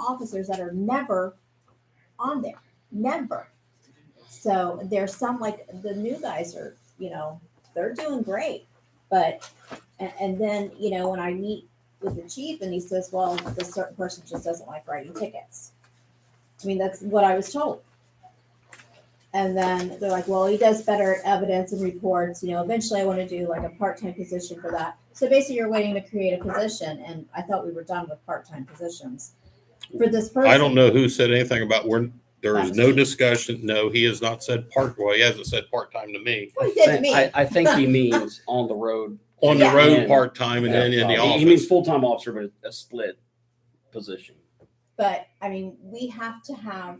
officers that are never on there, never. So there's some like the new guys are, you know, they're doing great, but and, and then you know when I meet with the chief and he says, well, this certain person just doesn't like writing tickets. I mean, that's what I was told. And then they're like, well, he does better at evidence and reports. You know, eventually I want to do like a part time position for that. So basically, you're waiting to create a position. And I thought we were done with part time positions for this person. I don't know who said anything about where, there is no discussion. No, he has not said part, well, he hasn't said part-time to me. What he said to me. I, I think he means on the road. Uh, On the Yeah. road, part-time and then in the He- He means office. full-time officer, but a split position. but I mean, we have to have,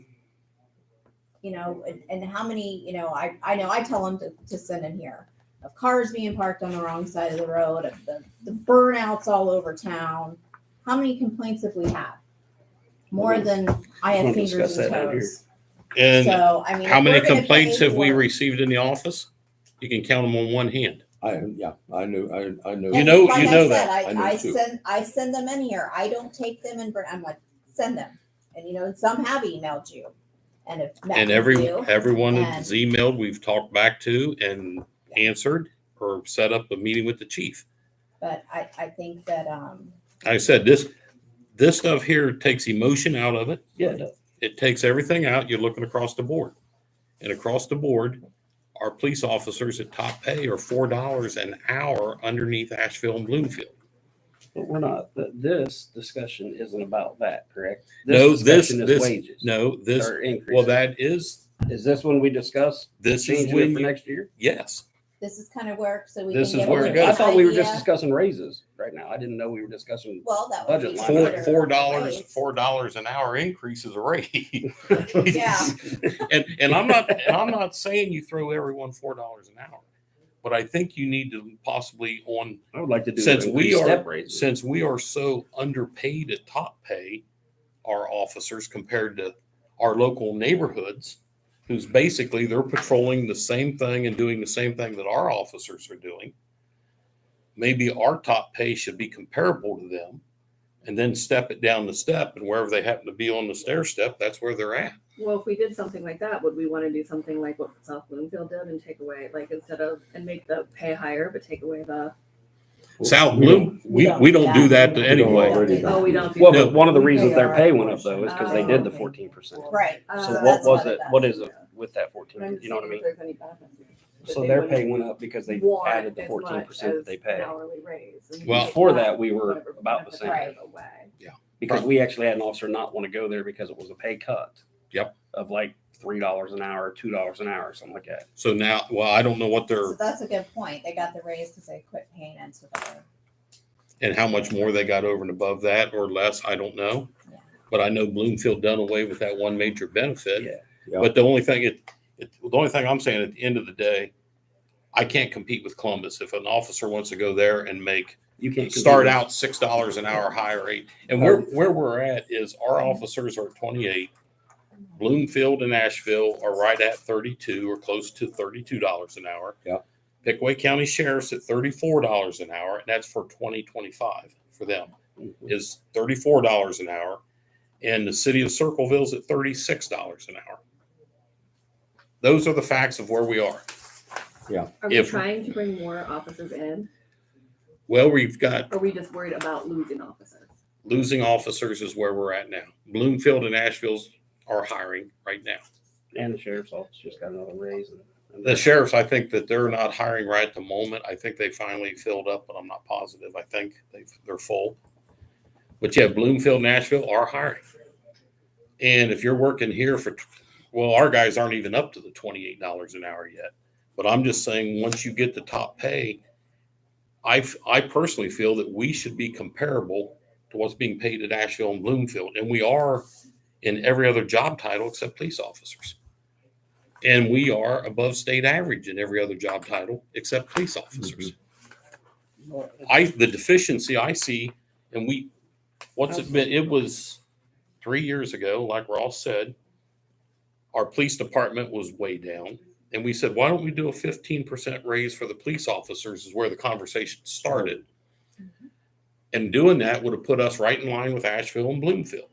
you know, and, and how many, you know, I, I know I tell them to, to send in here of cars being parked on the wrong side of the road, of the, the burnouts all over town. How many complaints have we had? More than I We'll had fingers discuss and that out here. toes. And So, I mean. how if many we're gonna complaints pay have we for- received in the office? You can count them on one hand. I, yeah, I knew, I, I knew. You know- Like you I know said, that. I know I, I too. send, I send them in here. I don't take them and burn, I'm like, send them. And you know, and some have emailed you and have met And every, you. everyone and- that's emailed, we've talked back to and answered or set up a meeting with the chief. But I, I think that, um, Like I said, this, this stuff here takes emotion out of it. Yeah. it takes everything out. You're looking across the board. And across the board, our police officers at top pay are four dollars an hour underneath Asheville and Bloomfield. But we're not, th- this discussion isn't about that, correct? No, this, discussion is this, Wages. no, this, Or increase. well, that is, Is this when we discuss this is changing it for when, next year? yes. this is kind of where, so we can This get. is a where it little goes. I thought we were just idea. discussing raises right now. I didn't know we were discussing. Well, that would budget be. line Four, considered four a dollars, raise. four dollars an hour increase is a raise. Yeah. And, and I'm not, and I'm not saying you throw everyone four dollars an hour. But I think you need to possibly on I would like to do. Since we increased are- Step raises. since we are so underpaid at top pay, our officers compared to our local neighborhoods, who's basically they're patrolling the same thing and doing the same thing that our officers are doing. Maybe our top pay should be comparable to them and then step it down the step and wherever they happen to be on the stair step, that's where they're at. Well, if we did something like that, would we want to do something like what South Bloomfield did and take away, like instead of, and make the pay higher, but take away the, South We don't- Bloom, we, we don't do that to we don't anyway. already oh, we do. don't do Well, that? but one of the reasons They their are pay went up though is because they did the Oh. fourteen percent. Right. So So what that's was what it? it What is it Yeah. with that But uh, I'm fourteen? You know what I seeing mean? if there's any benefit that So they their wouldn't pay went up because they want added the as fourteen much percent as that they an pay. Hourly raise. and Well- Before take that, we were whatever about the benefit same. Right. away. Because we actually had an officer not want to go there because it was a pay cut. Yep. Of like three dollars an hour, two dollars an hour, something like that. So now, well, I don't know what So they're, that's a good point. They got the raise because they quit paying into the. and how much more they got over and above that or less, I don't know. But I know Bloomfield done away with that one major benefit. Yeah. Yeah. But the only thing, it, it, the only thing I'm saying at the end of the day, I can't compete with Columbus. If an officer wants to go there and make, You can't compete start with- out six dollars an hour higher rate, and where, where we're at is our officers are twenty-eight. Bloomfield and Asheville are right at thirty-two or close to thirty-two dollars an hour. Yep. Pickaway County Sheriff's at thirty-four dollars an hour, and that's for twenty twenty-five for them is thirty-four dollars an hour, and the city of Circleville's at thirty-six dollars an hour. Those are the facts of where we are. Are we If- trying to bring more officers in? Well, we've got Or Are we just worried about losing officers? losing officers is where we're at now. Bloomfield and Asheville's are hiring right now. And the sheriff's office just got another raise. and- and- The sheriffs, I think that they're not hiring right at the moment. I think they finally filled up, but I'm not positive. I think they've, they're full. But yeah, Bloomfield, Nashville are hiring. And if you're working here for, tw- well, our guys aren't even up to the twenty-eight dollars an hour yet. But I'm just saying, once you get the top pay, I, f- I personally feel that we should be comparable to what's being paid at Asheville and Bloomfield. And we are in every other job title except police officers. And we are above state average in every other job title except police officers. I, the deficiency I see, and we, what's it been, it was three years ago, like Ross said, our police department was way down. And we said, why don't we do a fifteen percent raise for the police officers is where the conversation started. And doing that would have put us right in line with Asheville and Bloomfield.